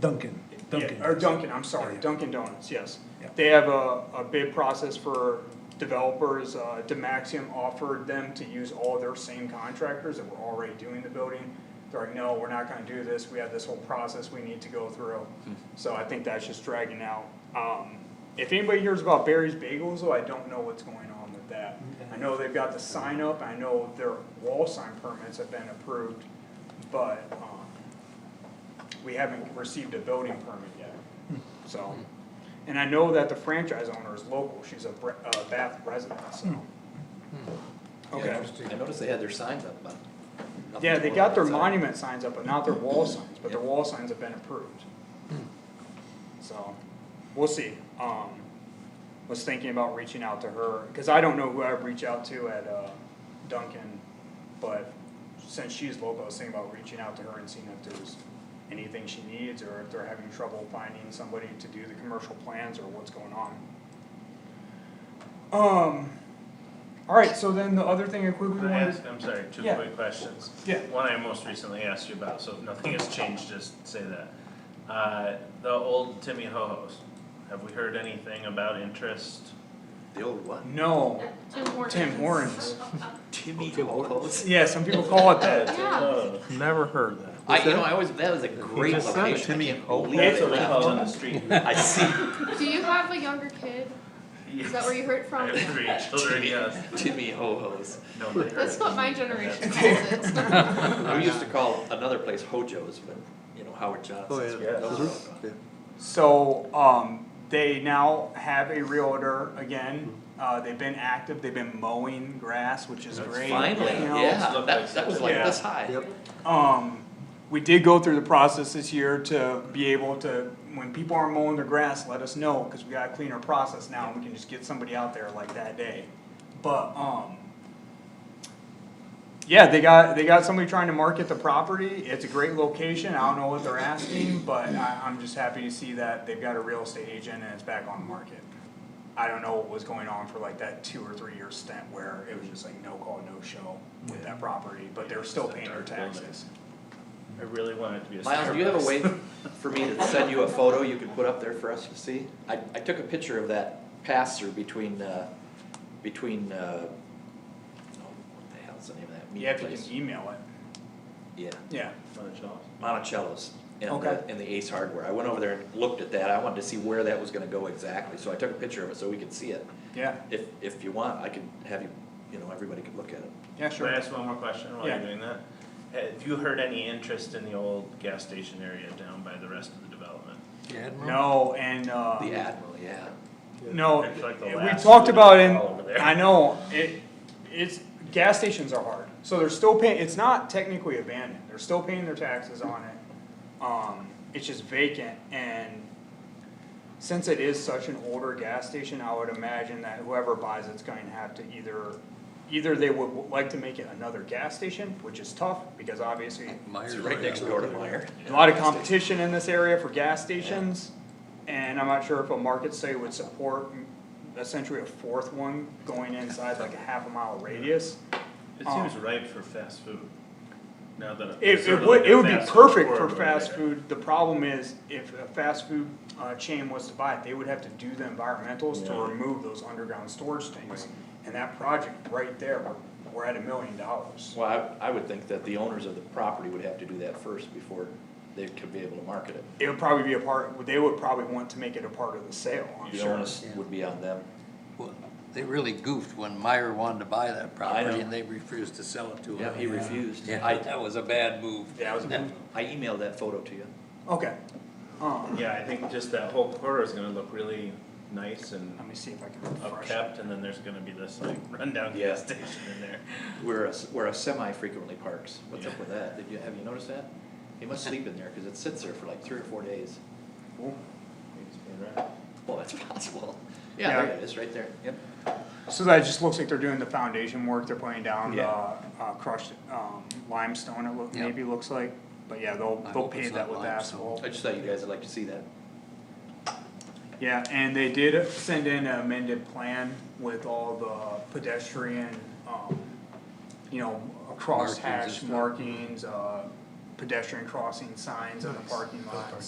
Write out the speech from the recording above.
Duncan, Duncan. Yeah, Or Dunkin', I'm sorry, Yeah. Dunkin' Donuts, yes. Yeah. They have a, a bid process for developers, uh, Demaxium offered them to use all their same contractors that were already doing the building. They're like, no, we're not gonna do this, we have this whole process we need to go through, Hmm. so I think that's just dragging out. Um, if anybody hears about Barry's Bagels, though, I don't know what's going on with that. I know they've got the sign up, I know their wall sign permits have been approved, but, um, we haven't received a building permit yet, so. And I know that the franchise owner is local, she's a Bre- uh, Bath resident, so. Hmm. Okay, I noticed they had their signs up, but. nothing yeah, they got their outside. monument signs up, but not their wall signs, but their wall signs have been approved. So, we'll see, um, was thinking about reaching out to her, cause I don't know who I'd reach out to at, uh, Duncan, but since she's local, I was thinking about reaching out to her and seeing if there's anything she needs, or if they're having trouble finding somebody to do the commercial plans, or what's going on. Um, alright, so then the other thing I quickly Can I wanted. ask, I'm sorry, two Yeah. quick questions. Yeah. One I most recently asked you about, so if nothing has changed, just say that. Uh, the old Timmy Ho-Ho's, have we heard anything about interest? The old what? No, Tim Hortons. Tim Hortons. Timmy Ho-Ho's? Yeah, some people call it that. Yeah. Never heard that. I, you know, I always, that was a great just said it, location, I Timmy can't believe That's they what they call it on the left. street. I see Do you have a younger kid? Is that where you heard I from? have three children, Timmy, yes, Timmy Ho-Ho's. no, they That's heard. what my generation calls it. We used to call another place Hojo's, but, you know, Howard Oh, Johnson's. yeah. those were all gone. Yeah. So, um, they now have a realtor again. Uh, they've been active, they've been mowing grass, which is great. Finally, you know? yeah, Looked like that, that was like something. this high. Yep. Um, we did go through the process this year to be able to, when people aren't mowing their grass, let us know, cause we got a cleaner process now, and we can just get somebody out there like that day. But, um, yeah, they got, they got somebody trying to market the property, it's a great location, I don't know what they're asking, but I, I'm just happy to see that they've got a real estate agent and it's back on the market. I don't know what was going on for like that two or three year stint where it was just like no call, no show with that property, but they're still paying their taxes. I really wanted to be a Starbucks. Miles, do you have a way for me to send you a photo you could put up there for us to see? I, I took a picture of that pass-through between, uh, between, uh, oh, what the hell's the name of that Yeah, meat if you place? can email it, Yeah, yeah. Monticello. Monticello's and Okay. the, and the Ace Hardware. I went over there and looked at that. I wanted to see where that was gonna go exactly, so I took a picture of it so we could see it. Yeah, If, if you want, I can have you, you know, everybody could look at it. yeah, Can sure. I ask one more question while Yeah. you're doing that? Have you heard any interest in the old gas station area down by the rest of the development? No, and, uh, The Admiral, yeah. no, It's like the we last talked about all over it, there. I know, it, it's, gas stations are hard. So they're still paying, it's not technically abandoned, they're still paying their taxes on it. Um, it's just vacant and since it is such an older gas station, I would imagine that whoever buys it's going to have to either, either they would like to make it another gas station, which is tough, because obviously It's right next door to Meyer. A lot of competition in this area for gas stations, and I'm not sure if a market study would support essentially a fourth one going inside like a half a mile radius. It Um, seems ripe for fast food. Now that. It, it would, it would be perfect for fast food, the problem is, if a fast food, uh, chain was to buy it, they would have to do the environmentals to Yeah. remove those underground storage tanks. And that project right there, we're, we're at a million dollars. Well, I, I would think that the owners of the property would have to do that first before they could be able to market it. It would probably be a part, they would probably want to make it a part of the sale, I'm The sure. onus would be on them. Well, They really goofed when Meyer wanted to buy that know. property and they refused to sell it to him. Yeah, he refused. Yeah, I- that was a bad move. Yeah, it was a bad move. I emailed that photo to you. Okay, um, Yeah, I think just that whole corridor is gonna look really nice and let me see if I can refresh. it. upkept, and then there's gonna be this like rundown Yeah. gas station in there. We're a, s- we're a semi-frequently parks. What's up with that? Did you, have you noticed that? He must sleep in there, cause it sits there for like three or four days. Maybe it's been wrecked. Well, that's possible. Yeah, Yeah. there it is, right there. Yep. So that just looks like they're doing the foundation work, they're putting down, Yeah. uh, uh, crushed, um, limestone, it look, Yeah. maybe looks like. But yeah, they'll, I they'll hope it's pave that not with limestone. asphalt. I just thought you guys would like to see that. Yeah, and they did send in an amended plan with all the pedestrian, um, you know, Markings and crosshatch stuff. markings, uh, pedestrian crossing signs in the parking lots.